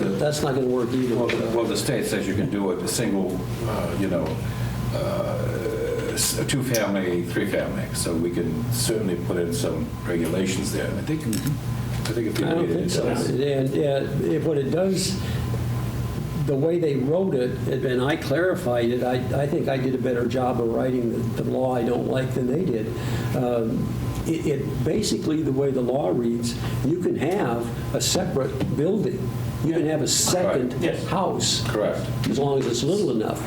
that's not going to work either. Well, uh, the- well, the state says you can do it, a single, uh, you know, uh, s- two-family, three-family, so we can certainly put in some regulations there, and I think, I think if I people don't read it, think it so. does. And uh, if what it does, the way they wrote it, and I clarified it, I, I think I did a better job of writing the, the law I don't like than they did. Um, It, it, basically, the way the law reads, you can have a separate building. You can have a second Right. Yes. house. Correct. As long as it's little enough.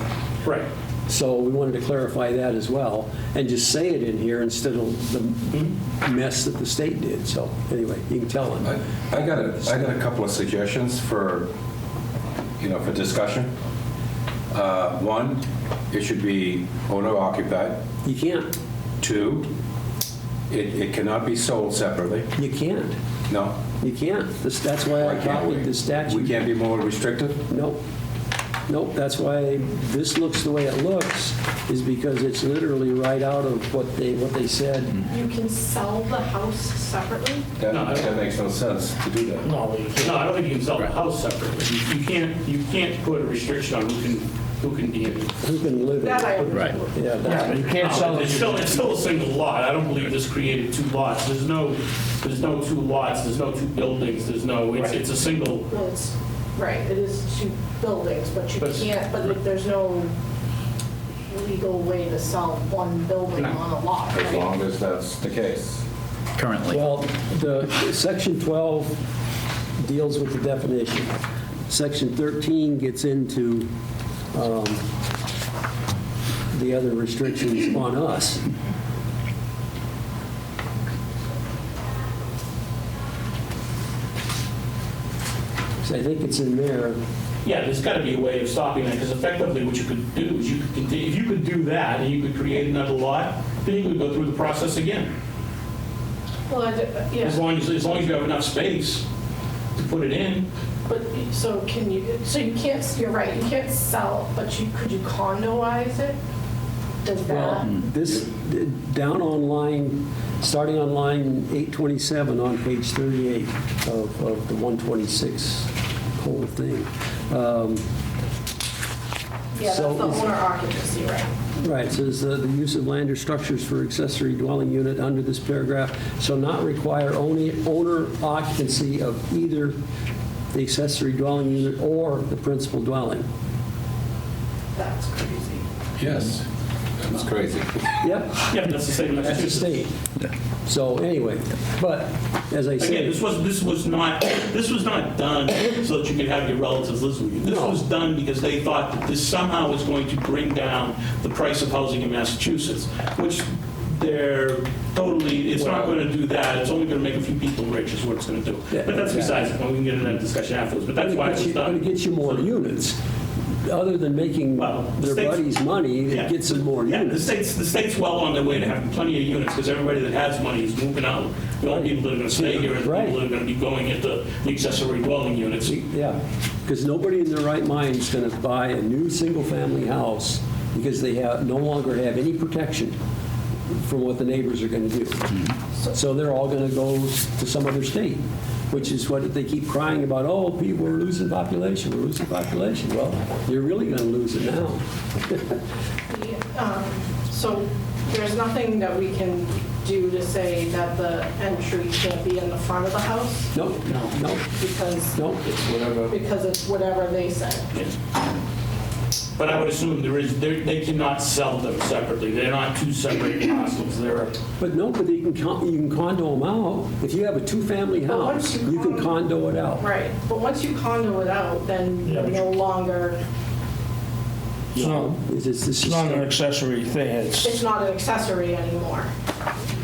Right. So we wanted to clarify that as well, and just say it in here instead of the mess that the state did. So, anyway, you can tell them. I I got a, I got a couple of suggestions for, you know, for discussion. Uh, One, it should be owner occupied. You can't. Two, it it cannot be sold separately. You can't. No? You can't. This- That's why Why I can't we? copied Uh, the We statute. can't be more restrictive? Nope. Nope, that's why this looks the way it looks, is because it's literally right out of what they, what they said. You can sell the house separately? That, No, I don't- that makes no sense to do that. No, I don't think you can sell the house separately. You- You can't, you can't put a restriction on who can, who can be in it. Who can live That I it? would. Right. Yeah, that's- You can't sell It's it. still, it's still a single lot. I don't believe this created two lots. There's no, there's no two lots, there's no two buildings, there's no, it's, it's a single, Well, it's, right, it is two buildings, but you But- can't, but there's no legal way to sell one building No. on a lot. As right? long as that's the case. currently. Well, the, section 12 deals with the definition. Section 13 gets into um, the other restrictions on us. So I think it's in there. yeah, there's got to be a way of stopping that, because effectively what you could do is you could, conti- if you could do that and you could create another lot, then you could go through the process again. Well, I d- uh, As yeah, long as, as long as you have enough space to put it in. but, so can you, so you can't, you're right, you can't sell, but you, could you condoize it? Does Well, that? this, down on line, starting on line 827 on page 38 of of the 126 whole thing. Um, Yeah, that's the so is- owner occupancy, right? Right, it says uh, the use of land or structures for accessory dwelling unit under this paragraph shall not require only owner occupancy of either the accessory dwelling unit or the principal dwelling. That's crazy. Yes. That's crazy. Yep, Yeah, but that's the same in that's the Massachusetts. state. So anyway, but as I Again, say, this was, this was not, this was not done so that you could have your relatives live with you. This was done because they thought that this somehow was going to bring down the price of housing in Massachusetts, which they're totally, it's not going to do that. It's only going to make a few people rich is what it's going to do. Yeah, But that's exactly. besides, the point. we can get into that discussion afterwards, but that's why but it was you- but it done. gets you more units. Other than making Well, the their state's- buddies money, Yeah. it gets them more Yeah, the units. state's, the state's well on their way to having plenty of units because everybody that has money is moving out. The only people that are going to stay here are the Right. people that are going to be going into the accessory dwelling units. Yeah, because nobody in their right mind is going to buy a new single-family house because they have, no longer have any protection from what the neighbors are going to do. So they're all going to go to some other state, which is what they keep crying about, oh, people, we're losing population, we're losing population. Well, you're really going to lose it now. Um, So there's nothing that we can do to say that the entry can't be in the front of the house No, no, because, no. because it's whatever they say. But I would assume there is, there- they cannot sell them separately. They're not two separate parcels. They're, But no, but you can con- you can condo them out. If you have a two-family But Oh, once house, you you can condo- condo it out. Right, but once you condo it out, then Yeah, you're but no longer, It's not, It's it's- it's it's just- not an accessory thing, it's, it's not an accessory anymore.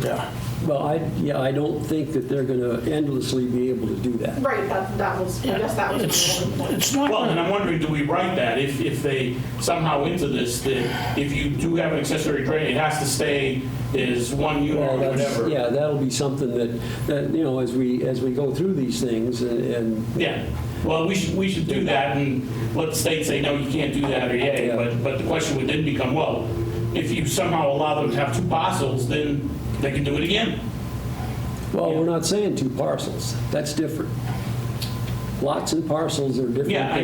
yeah. Well, I, yeah, I don't think that they're going to endlessly be able to do that. Right, that, that was, I guess that It's, was my only point. it's not, well, and I'm wondering, do we write that if, if they somehow into this, that if you do have an accessory dwelling, it has to stay as one unit or Well, that's- whatever? Yeah, that'll be something that, that, you know, as we, as we go through these things and- and, Yeah. Well, we should, we should do that and let the state say, no, you can't do that or yay. Yeah. But, but the question would then become, well, if you somehow allow them to have two parcels, then they can do it again. well, we're not saying two parcels. That's different. lots and parcels are different. Yeah, I than